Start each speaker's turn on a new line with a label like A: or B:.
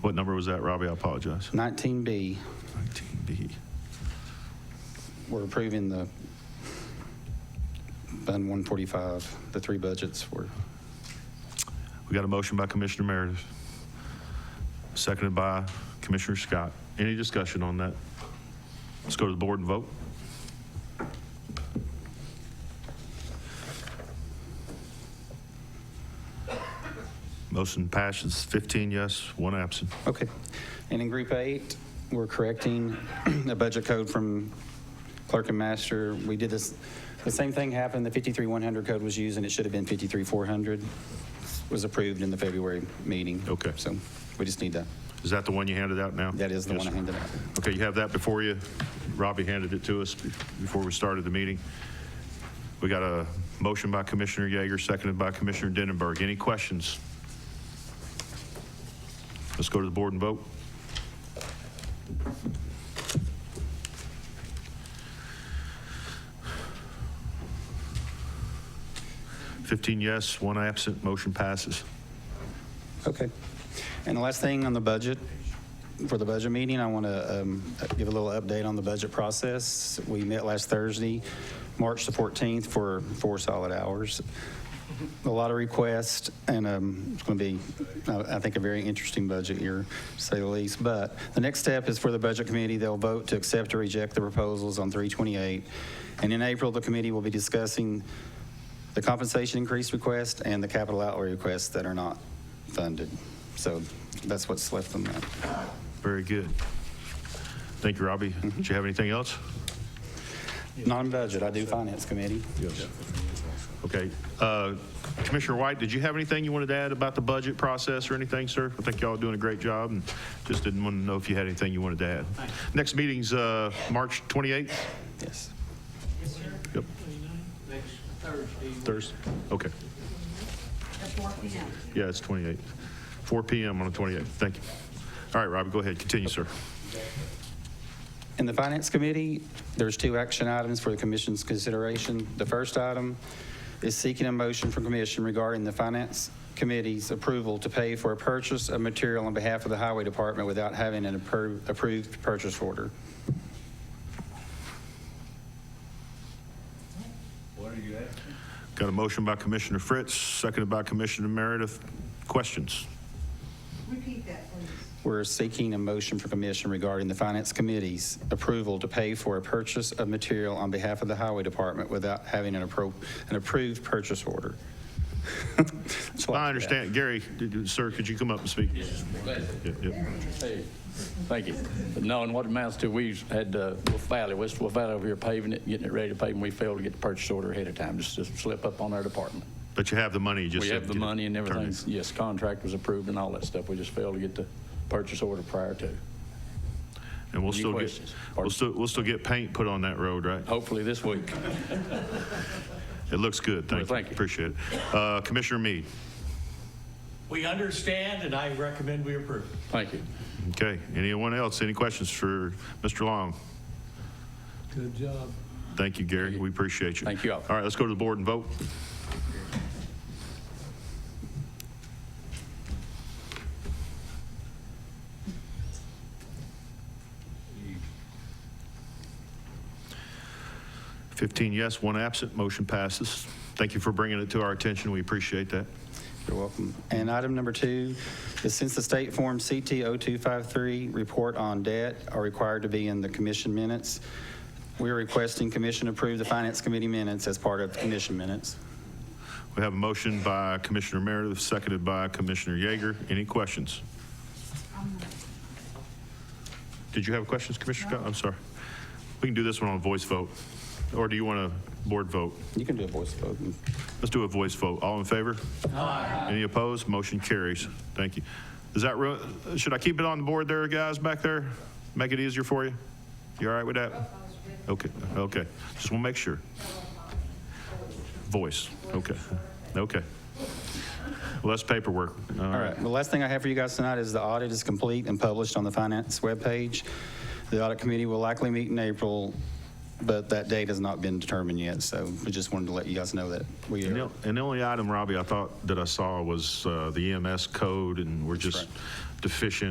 A: What number was that, Robbie? I apologize.
B: 19B,
A: 19B.
B: we're approving the Fund 145, the three budgets were,
A: We got a motion by Commissioner Meredith, seconded by Commissioner Scott. Any discussion on that? Let's go to the board and vote. Motion passes 15 yes, one absent.
B: okay. And in Group 8, we're correcting a budget code from clerk and master. We did this, the same thing happened, the 53100 code was used, and it should have been 53400, was approved in the February meeting.
A: Okay.
B: So we just need that.
A: Is that the one you handed out now?
B: That is the
A: Yes,
B: one I
A: sir.
B: handed out.
A: Okay, you have that before you. Robbie handed it to us be- before we started the meeting. We got a motion by Commissioner Yeager, seconded by Commissioner Denenberg. Any questions? Let's go to the board and vote. Fifteen yes, one absent, motion passes.
B: Okay. And the last thing on the budget, for the budget meeting, I want to um, give a little update on the budget process. We met last Thursday, March the 14th, for four solid hours. A lot of requests, and um, it's going to be, I I think, a very interesting budget year, to say the least. But the next step is for the Budget Committee, they'll vote to accept or reject the proposals on 328. And in April, the committee will be discussing the compensation increase request and the capital outlay requests that are not funded. So that's what's left on that.
A: Very good. Thank you, Robbie. Did you have anything else?
B: Non-budget, I do finance committee.
A: Yes. Okay. Uh, Commissioner White, did you have anything you wanted to add about the budget process or anything, sir? I think y'all are doing a great job, and just didn't want to know if you had anything you wanted to add. Next meeting's uh, March 28th?
B: Yes.
C: Yes, sir.
A: Yep.
C: Next Thursday.
A: Thursday? Okay. Yeah, it's 28th. 4 PM on the 28th. Thank you. All right, Robbie, go ahead. Continue, sir.
B: In the Finance Committee, there's two action items for the Commission's consideration. The first item is seeking a motion from Commission regarding the Finance Committee's approval to pay for a purchase of material on behalf of the Highway Department without having an appro- approved purchase order.
A: Got a motion by Commissioner Fritz, seconded by Commissioner Meredith. Questions?
D: Repeat that, please.
B: We're seeking a motion for commission regarding the Finance Committee's approval to pay for a purchase of material on behalf of the Highway Department without having an appro, an approved purchase order. That's all
A: I
B: have.
A: understand. Gary, did- did- sir, could you come up and speak? Yeah, yeah.
E: Hey, Thank you. But No, and what amounts to, we had uh, Wolf Valley, West Wolf Valley over here paving it, getting it ready to pave, and we failed to get the purchase order ahead of time, just to slip up on our department.
A: But you have the money, you just.
E: We
A: didn't
E: have the
A: get it
E: money and
A: turned in.
E: everything, yes, contract was approved and all that stuff, we just failed to get the purchase order prior to.
A: And we'll
E: Any
A: still get,
E: questions? Oh.
A: we'll still, we'll still get paint put on that road, right?
E: Hopefully this week.
A: It looks good, thank you.
E: Well, thank you.
A: Appreciate it. Uh, Commissioner Mead,
C: We understand, and I recommend we approve.
E: Thank you.
A: okay. Anyone else, any questions for Mr. Long?
C: Good job.
A: Thank you, Gary, we appreciate you.
E: Thank you all.
A: All right, let's go to the board and vote. Fifteen yes, one absent, motion passes. Thank you for bringing it to our attention, we appreciate that.
B: You're welcome. And item number two is since the state form CT 0253 report on debt are required to be in the commission minutes, we are requesting commission approve the Finance Committee minutes as part of the commission minutes.
A: We have a motion by Commissioner Meredith, seconded by Commissioner Yeager. Any questions? Did you have questions, Commissioner Scott? I'm sorry. We can do this one on a voice vote, or do you want a board vote?
B: You can do a voice vote.
A: Let's do a voice vote. All in favor? Aye. Any opposed? Motion carries. Thank you. Is that, real- should I keep it on the board there, guys, back there? Make it easier for you? You all right with that? Okay, okay. Just want to make sure. Voice, okay, okay. Less paperwork. All
B: All
A: right.
B: right, the last thing I have for you guys tonight is the audit is complete and published on the finance webpage. The audit committee will likely meet in April, but that date has not been determined yet, so we just wanted to let you guys know that we
A: And
B: are.
A: the- And the only E item, Robbie, I thought that I saw was uh, the EMS code, and we're just deficient